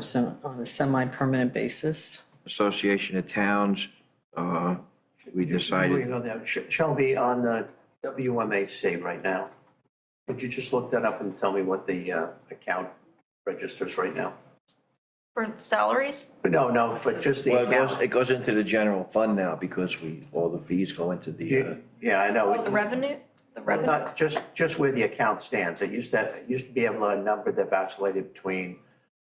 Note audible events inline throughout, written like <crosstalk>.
sem- on a semi-permanent basis. Association of Towns, uh, we Before you decided, go there, Sh- Shelby, on the WMAC right now, could you just look that up and tell me what the uh, account registers right now? For salaries? No, no, but just the well, it goes, it account. goes into the general fund now because we, all the fees go into the, uh, Yeah, I know. Oh, the revenue, the revenue. Not, just, just where the account stands. It used to, it used to be able to number that vacillated between,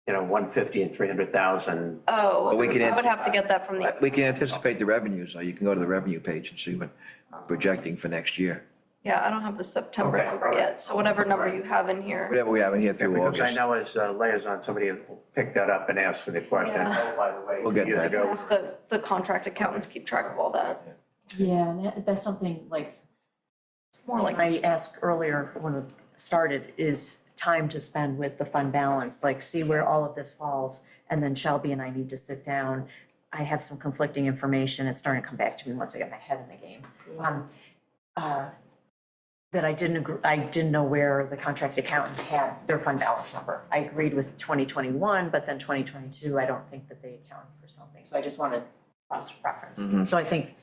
you know, 150 and 300,000. Oh, I But we can add- would have to get that from the, uh, we can anticipate the revenues, so you can go to the revenue page and see what we're projecting for next year. yeah, I don't have the September Okay, number all right. yet, so whatever number you have in here. Whatever we have in here through Because I August. know as uh, liaison, somebody picked that up and asked for the question. Yeah. Oh, by the way, We'll get years that. ago, Ask the, the contract accountants keep track of all that, Yeah, and that, that's something like, more like. I asked earlier when it started, is time to spend with the fund balance, like see where all of this falls. And then Shelby and I need to sit down. I have some conflicting information. It's starting to come back to me once I get my head in the game. Um, uh, That I didn't agree, I didn't know where the contract accountant had their fund balance number. I agreed with twenty twenty-one, but then twenty twenty-two, I don't think that they accounted for something. So I just wanted cross-reference. So I think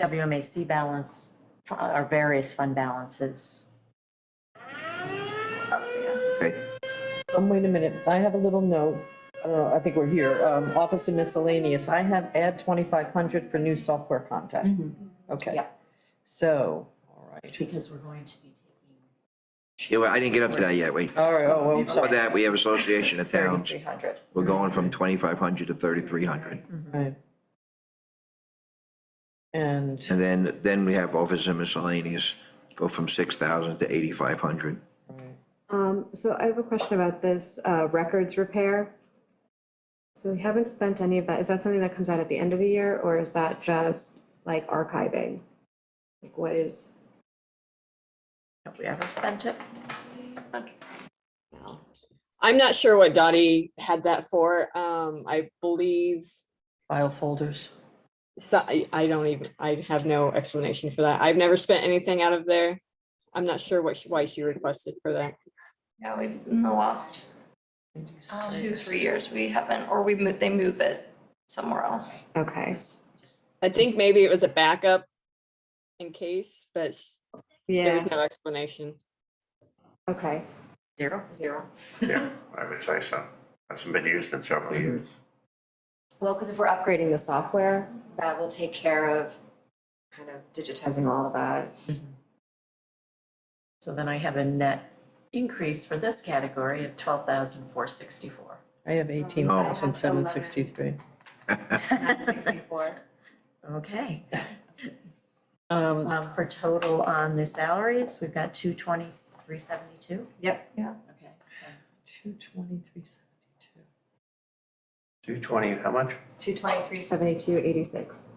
WMAC balance, uh, our various fund balances. Okay. Um, wait a minute, I have a little note, I don't know, I think we're here, um, office and miscellaneous, I have add twenty-five hundred for new software contact. Okay. Mm-hmm. Yeah. So, all right, Because we're going to be taking. Yeah, well, I didn't get up to that yet, wait. all right, oh, I'm Before sorry. that, we have Association of Towns. Thirty-three hundred. We're going from twenty-five hundred to thirty-three hundred. Right. oh, And, And then, then we have office and miscellaneous, go from six thousand to eighty-five hundred. Um, so I have a question about this, uh, records repair. So we haven't spent any of that, is that something that comes out at the end of the year, or is that just like archiving? Like what is, Have we ever spent it? I'm not sure what Dottie had that for. Um, I believe, file folders. so, I, I don't even, I have no explanation for that. I've never spent anything out of there. I'm not sure what, she- why she requested for that. Yeah, we've, in the last Um, two, three years, we haven't, or we move, they move it somewhere else. okay, Just I think maybe it was a backup in case, but s- there yeah, was no explanation. okay. zero? Zero. <laughs> Yeah, I would say so. Hasn't been used in several years. Well, because if we're upgrading the software, that will take care of kind of digitizing all of that. So then I have a net increase for this category of twelve thousand four sixty-four. I have eighteen thousand seven sixty-three. Sixty-four. Okay, <laughs> Um, um, for total on the salaries, we've got two twenty, three seventy-two? Yep. Yeah. Okay. two twenty-three seventy-two. 220, how much? Two twenty-three, seventy-two, eighty-six.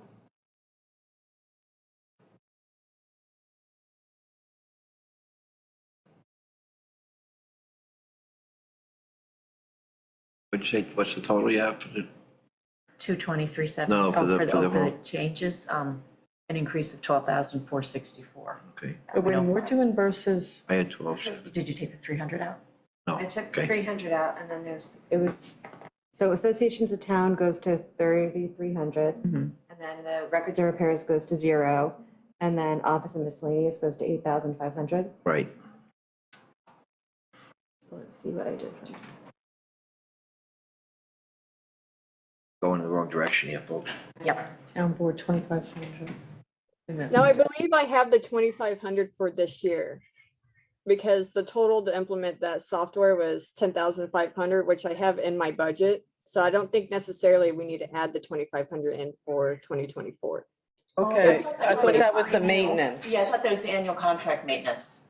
What'd you say, what's the total you have for the? Two twenty-three seventy, No, oh, for the- for the, for the oh, for the whole- changes, um, an increase of twelve thousand four sixty-four. Okay, But when we're doing versus, I had twelve, Did you take the three hundred out? no, I took okay. three hundred out and then there's, it was, so associations of town goes to thirty-three hundred. Mm-hmm. And then the records and repairs goes to zero, and then office and miscellaneous goes to eight thousand five hundred. Right, Let's see what I did. for- going in the wrong direction here, folks. Yep. town board twenty-five hundred. No, I believe I have the twenty-five hundred for this year. Because the total to implement that software was ten thousand five hundred, which I have in my budget. So I don't think necessarily we need to add the twenty-five hundred in for twenty twenty-four. Oh, Okay, I thought that was the maintenance. Yeah, I thought that was the annual contract maintenance.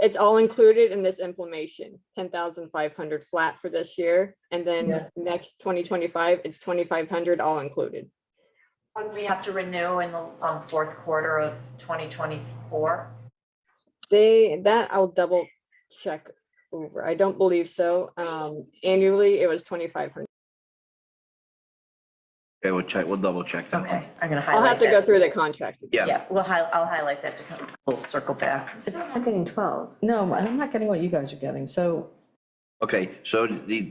It's all included in this implementation, ten thousand five hundred flat for this year, and Yeah. then next twenty twenty-five, it's twenty-five hundred all included. Would we have to renew in the um fourth quarter of twenty twenty-four? They, that I'll double check over. I don't believe so. Um, annually, it was twenty-five hundred. Okay, we'll check, we'll double check that one. Okay, I'm gonna highlight I'll that. have to go through the contract. again. Yeah, Yeah, we'll hi- I'll highlight that to come, we'll circle back. I'm not getting twelve. No, I'm not getting what you guys are getting, so okay, so the,